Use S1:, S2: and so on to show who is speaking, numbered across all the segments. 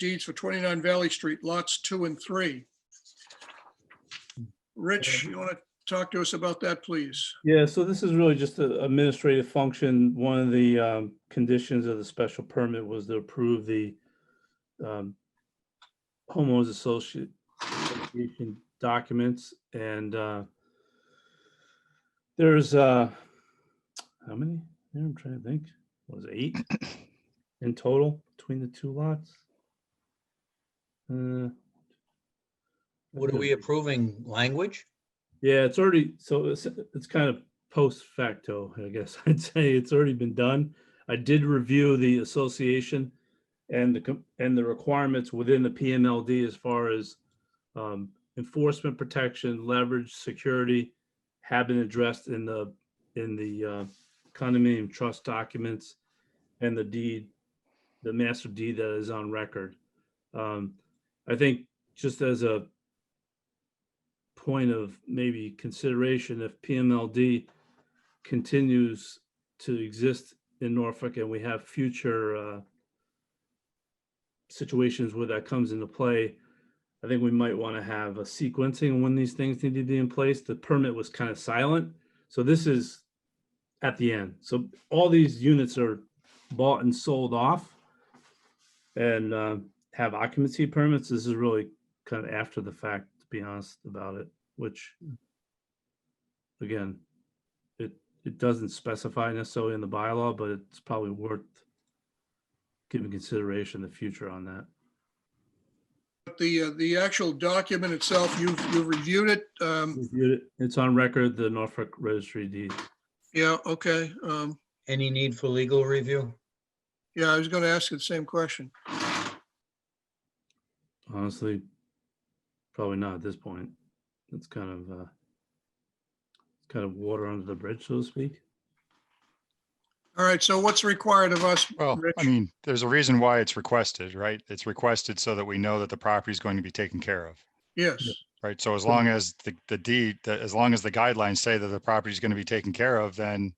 S1: deeds for 29 Valley Street, lots two and three. Rich, you want to talk to us about that, please?
S2: Yeah, so this is really just an administrative function. One of the um, conditions of the special permit was to approve the um, homeowners associate association documents and uh, there's uh, how many? Yeah, I'm trying to think. Was it eight in total between the two lots? Uh,
S3: What are we approving? Language?
S2: Yeah, it's already, so it's, it's kind of post facto, I guess I'd say. It's already been done. I did review the association and the, com- and the requirements within the PMLD as far as um, enforcement protection, leverage, security have been addressed in the, in the uh, condominium trust documents and the deed, the master deed that is on record. Um, I think just as a point of maybe consideration if PMLD continues to exist in Norfolk and we have future uh, situations where that comes into play, I think we might want to have a sequencing when these things need to be in place. The permit was kind of silent. So this is at the end. So all these units are bought and sold off and uh, have occupancy permits. This is really kind of after the fact, to be honest about it, which again, it, it doesn't specify necessarily in the bylaw, but it's probably worth giving consideration in the future on that.
S1: But The, uh, the actual document itself, you've, you've reviewed it. Um,
S2: Reviewed it. It's on record, the Norfolk Registry deed.
S1: Yeah, okay. Um,
S3: Any need for legal review?
S1: Yeah, I was going to ask you the same question.
S2: Honestly, probably not at this point. It's kind of, uh, kind of water under the bridge, so to speak.
S1: All right, so what's required of us?
S4: Well, I
S1: Rich?
S4: mean, there's a reason why it's requested, right? It's requested so that we know that the property is going to be taken care of,
S1: Yes,
S4: right? So as long as the, the deed, that as long as the guidelines say that the property is going to be taken care of, then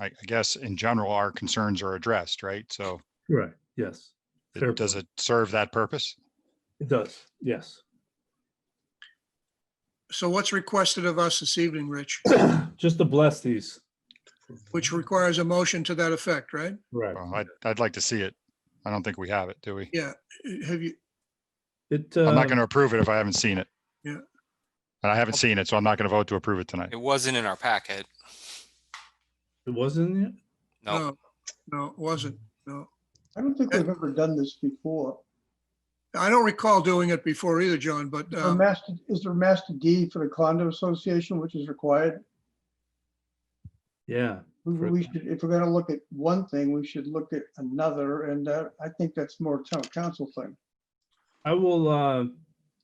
S4: I, I guess in general, our concerns are addressed, right? So
S2: Right. Yes.
S4: it-
S2: Fair
S4: does it serve that purpose?
S2: It does. Yes.
S1: so what's requested of us this evening, Rich?
S2: Just to bless these.
S1: Which requires a motion to that effect, right?
S2: Right.
S4: Well, I'd, I'd like to see it. I don't think we have it, do we?
S1: Yeah, have you,
S2: It,
S4: I'm
S2: uh,
S4: not going to approve it if I haven't seen it.
S1: Yeah.
S4: And I haven't seen it, so I'm not going to vote to approve it tonight.
S5: It wasn't in our packet.
S2: it wasn't yet?
S5: No,
S1: no, no, it wasn't, no.
S6: I don't think we've ever done this before.
S1: I don't recall doing it before either, John, but
S6: Is there a
S1: um,
S6: master, is there a master deed for the condo association, which is required?
S2: Yeah.
S6: We-
S2: For-
S6: We should, if we're gonna look at one thing, we should look at another, and uh, I think that's more town council thing.
S2: I will, uh,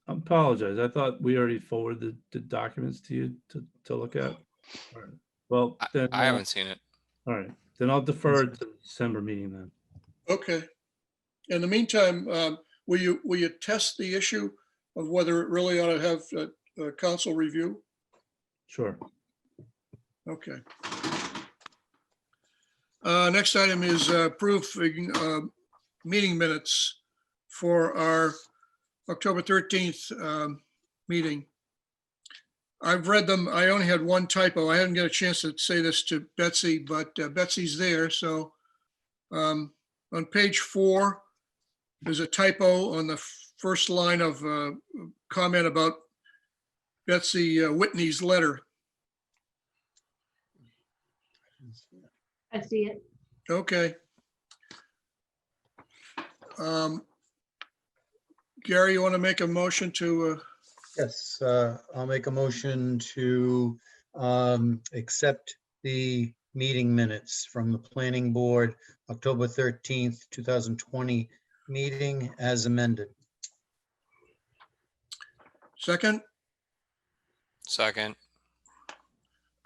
S2: apologize. I thought we already forwarded the documents to you to, to look at. All right. Well, then.
S5: I
S2: uh,
S5: haven't seen it.
S2: All right, then I'll defer to the December meeting then.
S1: okay. In the meantime, um, will you, will you test the issue of whether it really ought to have uh, uh, council review?
S2: Sure.
S1: Okay. Uh, Next item is uh, proof uh, meeting minutes for our October 13th um, meeting. I've read them. I only had one typo. I hadn't got a chance to say this to Betsy, but uh, Betsy's there, so. um, On page four, there's a typo on the first line of uh, comment about Betsy uh, Whitney's letter.
S7: I see it.
S1: Okay. Um, Gary, you want to make a motion to, uh,
S3: Yes, uh, I'll make a motion to um, accept the meeting minutes from the planning board, October 13th, 2020 meeting as amended.
S1: second?
S5: Second,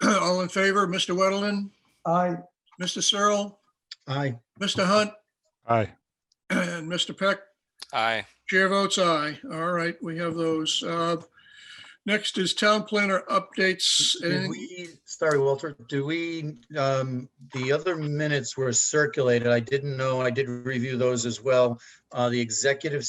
S1: All in favor, Mr. Weddleton,
S6: I,
S1: Mr. Searle,
S3: Aye.
S1: Mr. Hunt,
S4: Aye.
S1: and Mr. Peck?
S5: aye.
S1: Chair votes aye. All right, we have those. Uh, Next is town planner updates.
S3: Did
S1: Anything-
S3: we, sorry, Walter, do we, um, the other minutes were circulated. I didn't know. I did review those as well. Uh, The executive